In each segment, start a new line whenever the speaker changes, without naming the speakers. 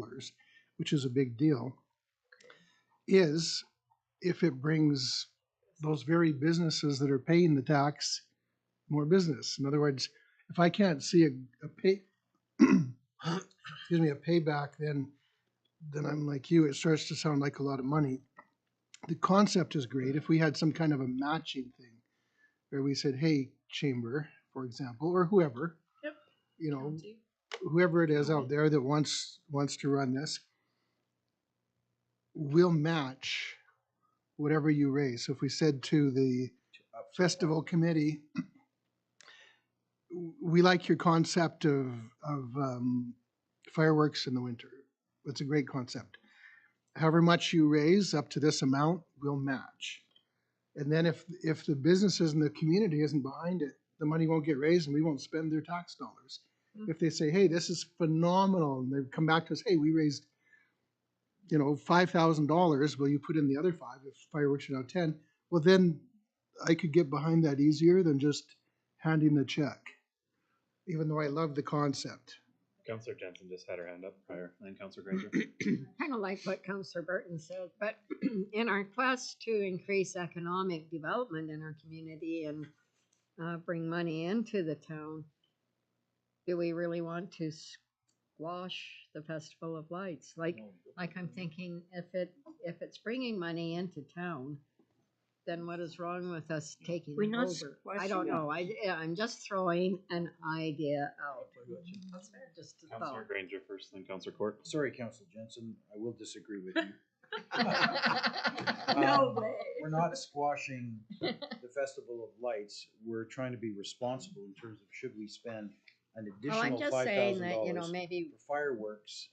dollars, which is a big deal, is if it brings those very businesses that are paying the tax more business. In other words, if I can't see a, a pay, excuse me, a payback, then, then I'm like you, it starts to sound like a lot of money. The concept is great. If we had some kind of a matching thing where we said, hey, chamber, for example, or whoever.
Yep.
You know, whoever it is out there that wants, wants to run this, will match whatever you raise. So if we said to the festival committee, "W- we like your concept of, of um, fireworks in the winter. It's a great concept. However much you raise up to this amount, we'll match. And then if, if the businesses in the community isn't behind it, the money won't get raised and we won't spend their tax dollars.
Mm.
If they say, hey, this is phenomenal, and they've come back to us, hey, we raised, you know, five thousand dollars, will you put in the other five if fireworks are now ten? Well, then I could get behind that easier than just handing the check, even though I love the concept.
Counselor Jensen just had her hand up prior, and then Counselor Granger.
kind of like what Counselor Burton said, but in our quest to increase economic development in our community and uh, bring money into the town, do we really want to squash the Festival of Lights? Like, like I'm thinking, if it if it's bringing money into town, then what is wrong with us taking
We're
it
not
over? I don't
squashing it.
know. I yeah, I'm just throwing an idea out.
That's fair.
Just a
Counselor
thought.
Granger first, then Counselor Court.
Sorry, Council Jensen, I will disagree with you.
No
Um,
way.
We're not squashing the Festival of Lights. We're trying to be responsible in terms of should we spend an
Well, Oh, I'm
additional
just
five
saying
thousand
that you know
dollars
maybe
for fireworks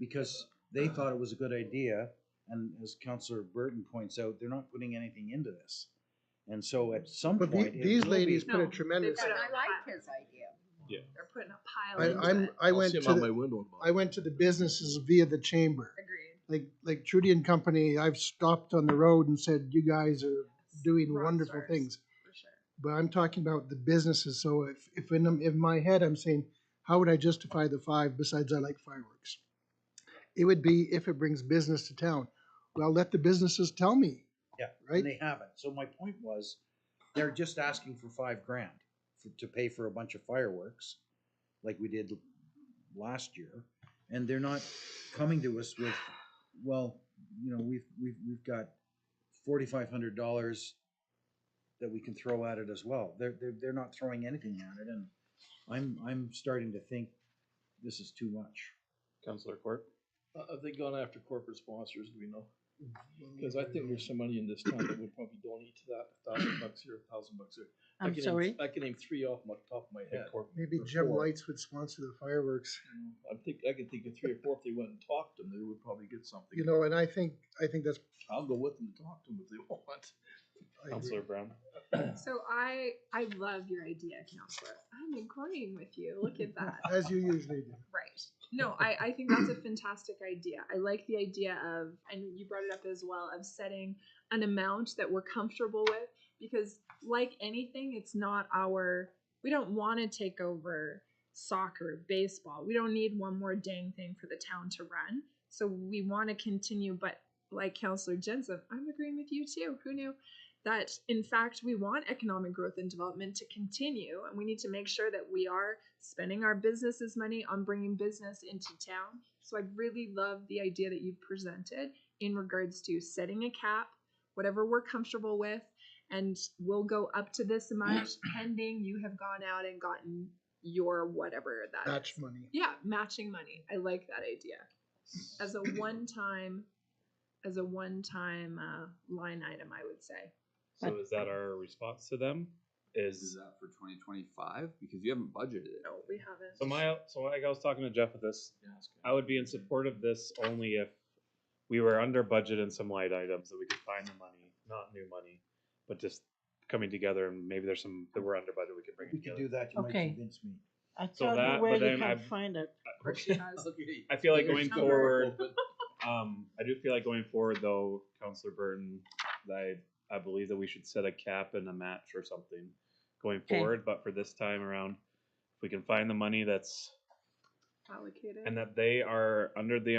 because they thought it was a good idea. And as Councilor Burton points out, they're not putting anything into this. And so at some
But
point.
the-
it
these
will be-
ladies put a
No,
tremendous.
they've
But
Put it
I
on
like
fire.
his idea.
They're putting a pile
I,
into
I'm,
it.
I went to, the-
window.
I went to the businesses via the chamber.
Agreed.
Like, like Trudy and Company, I've stopped on the road and said, you guys are
Yes.
doing
Rock
wonderful
stars,
things.
For sure.
But I'm talking about the businesses, so if, if in, in my head, I'm saying, how would I justify the five besides I like fireworks? It would be if it brings business to town. Well, let the businesses tell me.
Yeah,
Right?
And they haven't. So my point was, they're just asking for five grand for, to pay for a bunch of fireworks, like we did last year, and they're not coming to us with, well, you know, we've we've we've got forty-five hundred dollars that we can throw at it as well. They're they're they're not throwing anything at it, and I'm I'm starting to think this is too much.
Counselor Court.
Uh, Have they gone after corporate sponsors, do we know? Because I think there's some money in this town that would probably donate to that, a thousand bucks here, a thousand bucks there. I
I'm
can name-
sorry.
I can name three off my top of my head.
Maybe Jim Lights would sponsor the fireworks,
I think, I can think of three or four, if they went and talked to them, they would probably get something.
you know, and I think, I think that's.
I'll go with them to talk to them if they want.
I agree.
Counselor Brown.
So I, I love your idea, counselor. I'm agreeing with you. Look at that.
As you usually do.
Right. No, I, I think that's a fantastic idea. I like the idea of, and you brought it up as well, of setting an amount that we're comfortable with because, like anything, it's not our, we don't want to take over soccer, baseball. We don't need one more dang thing for the town to run. So we want to continue, but like Counselor Jensen, I'm agreeing with you too. Who knew? That in fact, we want economic growth and development to continue, and we need to make sure that we are spending our businesses' money on bringing business into town. So I really love the idea that you've presented in regards to setting a cap, whatever we're comfortable with, and we'll go up to this amount pending you have gone out and gotten your whatever that
Match
is.
money.
Yeah, matching money. I like that idea. As a one time, as a one time uh, line item, I would say.
So is that our response to them?
Is
Is,
that for twenty twenty-five? Because you haven't budgeted it.
No, we haven't.
so my, so like I was talking to Jeff with this, I would be in support of this only if we were under budget in some light items that we could find the money, not new money, but just coming together and maybe there's some that we're under budget we could bring
We
it
could
together.
do that. You might
Okay.
convince me.
I
So
thought
that,
you where
but
they
then
can
I've-
find it.
I feel like
There's
going
number.
forward, um, I do feel like going forward though, Counselor Burton, I, I believe that we should set a cap and a match or something going
Okay.
forward, but for this time around, if we can find the money that's,
Allocated.
and that they are under the